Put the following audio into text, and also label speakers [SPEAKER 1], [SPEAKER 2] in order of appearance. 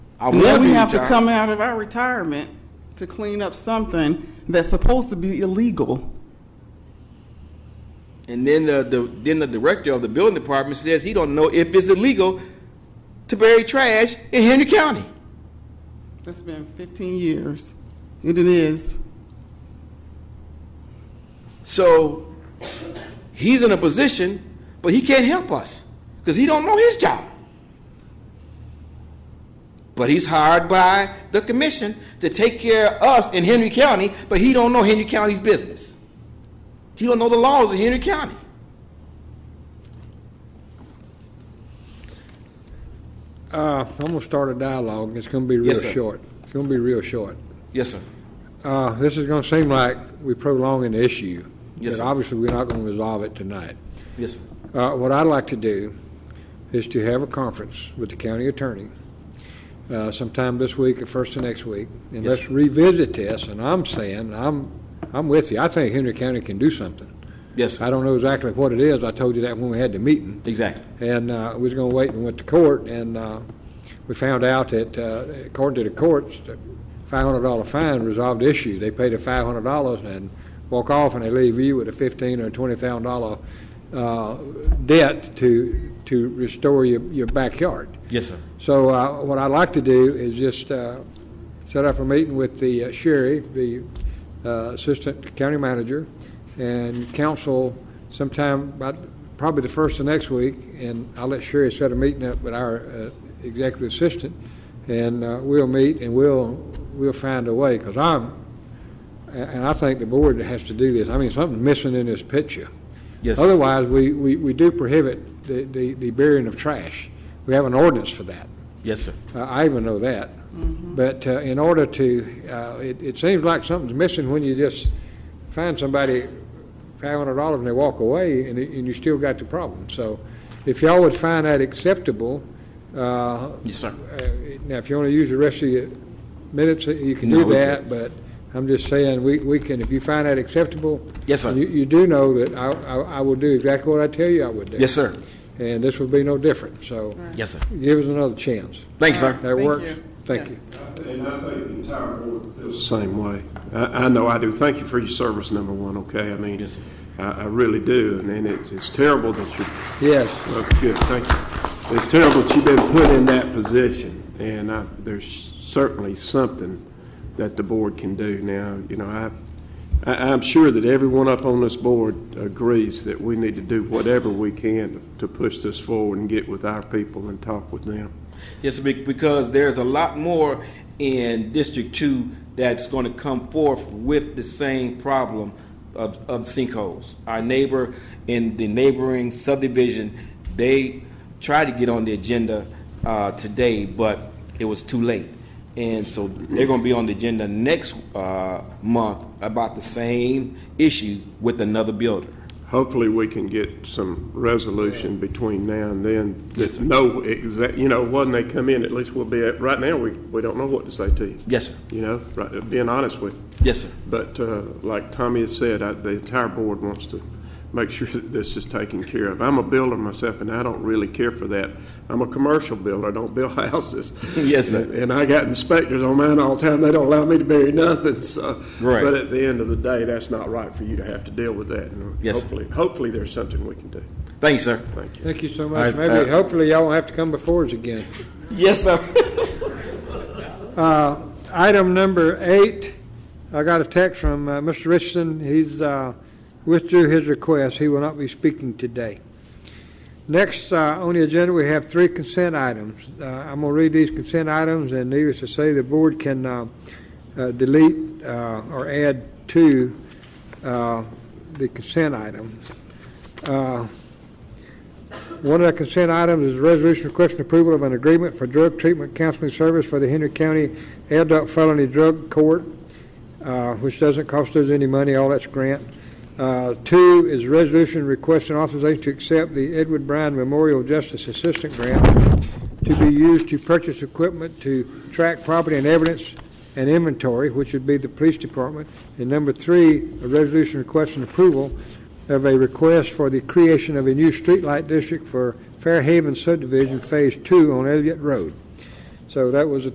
[SPEAKER 1] I
[SPEAKER 2] Now
[SPEAKER 1] wanna
[SPEAKER 2] we
[SPEAKER 1] be
[SPEAKER 2] have to
[SPEAKER 1] retired.
[SPEAKER 2] come out of our retirement to clean up something that's supposed to be illegal.
[SPEAKER 1] And then the, the then the director of the building department says he don't know if it's illegal to bury trash in Henry County.
[SPEAKER 2] That's been 15 years. It is.
[SPEAKER 1] So he's in a position, but he can't help us because he don't know his job. But he's hired by the commission to take care of us in Henry County, but he don't know Henry County's business. He don't know the laws of Henry County.
[SPEAKER 3] Uh, I'm gonna start a dialogue, it's gonna be real
[SPEAKER 1] Yes, sir.
[SPEAKER 3] short. It's gonna be real short.
[SPEAKER 1] Yes, sir.
[SPEAKER 3] Uh, this is gonna seem like we prolong an issue.
[SPEAKER 1] Yes,
[SPEAKER 3] But
[SPEAKER 1] sir.
[SPEAKER 3] obviously, we're not gonna resolve it tonight.
[SPEAKER 1] Yes, sir.
[SPEAKER 3] Uh, What I'd like to do is to have a conference with the county attorney uh, sometime this week or first of next week, and
[SPEAKER 1] Yes,
[SPEAKER 3] let's revisit this, and I'm saying, I'm, I'm with you, I think Henry County can do something.
[SPEAKER 1] Yes, sir.
[SPEAKER 3] I don't know exactly what it is, I told you that when we had the meeting,
[SPEAKER 1] Exactly.
[SPEAKER 3] and uh, we was going to wait and went to court, and uh, we found out that, uh, according to the courts, the $500 fine resolved the issue. They pay the $500 and walk off, and they leave you with a $15,000 or $20,000 uh, debt to, to restore your, your backyard.
[SPEAKER 1] Yes, sir.
[SPEAKER 3] So uh, what I'd like to do is just uh, set up a meeting with the uh, Sherry, the uh, Assistant County Manager, and council sometime, about probably the first of next week, and I'll let Sherry set a meeting up with our uh, Executive Assistant, and uh, we'll meet and we'll, we'll find a way, because I'm, and and I think the board has to do this, I mean, something's missing in this picture.
[SPEAKER 1] Yes.
[SPEAKER 3] Otherwise, we, we we do prohibit the- the the burying of trash. We have an ordinance for that.
[SPEAKER 1] Yes, sir.
[SPEAKER 3] Uh, I even know that. But uh, in order to, uh, it, it seems like something's missing when you just find somebody five hundred dollars and they walk away and, it- and you still got the problem. So if y'all would find that acceptable, uh,
[SPEAKER 1] Yes, sir.
[SPEAKER 3] uh, Now, if you want to use the rest of your minutes, uh, you can
[SPEAKER 1] No,
[SPEAKER 3] do
[SPEAKER 1] we
[SPEAKER 3] that, but I'm just saying, we, we can, if you find that acceptable.
[SPEAKER 1] Yes, sir.
[SPEAKER 3] You, you do know that I, I I will do exactly what I tell you I would do.
[SPEAKER 1] Yes, sir.
[SPEAKER 3] And this would be no different, so
[SPEAKER 1] Yes, sir.
[SPEAKER 3] give us another chance.
[SPEAKER 1] Thank you, sir.
[SPEAKER 3] That
[SPEAKER 2] Thank
[SPEAKER 3] works?
[SPEAKER 2] you. Yes.
[SPEAKER 3] Thank you.
[SPEAKER 4] And I think the entire board feels the same way. I, I know I do. Thank you for your service, number one, okay? I mean,
[SPEAKER 1] Yes, sir.
[SPEAKER 4] I, I really do, and, and it's, it's terrible that you,
[SPEAKER 3] Yes,
[SPEAKER 4] well, good, thank you. It's terrible that you've been put in that position, and I, there's certainly something that the board can do. Now, you know, I, I, I'm sure that everyone up on this board agrees that we need to do whatever we can to- to push this forward and get with our people and talk with them.
[SPEAKER 1] Yes, be- because there's a lot more in District Two that's going to come forth with the same problem of, of sinkholes. Our neighbor in the neighboring subdivision, they tried to get on the agenda uh, today, but it was too late. And so they're going to be on the agenda next uh, month about the same issue with another builder.
[SPEAKER 4] Hopefully, we can get some resolution between now and then.
[SPEAKER 1] Yes, sir.
[SPEAKER 4] No, exact, you know, when they come in, at least we'll be, at right now, we, we don't know what to say to you.
[SPEAKER 1] Yes, sir.
[SPEAKER 4] You know, right, being honest with you.
[SPEAKER 1] Yes, sir.
[SPEAKER 4] But uh, like Tommy has said, I- the entire board wants to make sure that this is taken care of. I'm a builder myself, and I don't really care for that. I'm a commercial builder, I don't build houses.
[SPEAKER 1] Yes, sir.
[SPEAKER 4] And I got inspectors on mine all the time, they don't allow me to bury nothing, so.
[SPEAKER 1] Right.
[SPEAKER 4] But at the end of the day, that's not right for you to have to deal with that. and
[SPEAKER 1] Yes, sir.
[SPEAKER 4] Hopefully, hopefully there's something we can do.
[SPEAKER 1] Thank you, sir.
[SPEAKER 4] Thank you.
[SPEAKER 3] thank you so
[SPEAKER 1] All right,
[SPEAKER 3] much.
[SPEAKER 1] uh,
[SPEAKER 3] Maybe, hopefully, y'all won't have to come before us again.
[SPEAKER 1] Yes, sir.
[SPEAKER 3] Uh, Item number eight, I got a text from uh, Mr. Richardson. He's uh, withdrew his request. He will not be speaking today. Next, uh, on the agenda, we have three consent items. Uh, I'm going to read these consent items, and needless to say, the board can uh, uh, delete uh, or add to uh, the consent item. Uh, One of the consent items is resolution requesting approval of an agreement for drug treatment counseling service for the Henry County Adult Felony Drug Court, uh, which doesn't cost us any money, all that's grant. Uh, Two is resolution requesting authorization to accept the Edward Bryan Memorial Justice Assistant Grant to be used to purchase equipment to track property and evidence and inventory, which would be the police department. And number three, a resolution requesting approval of a request for the creation of a new streetlight district for Fairhaven subdivision, Phase Two on Elliott Road. So that was the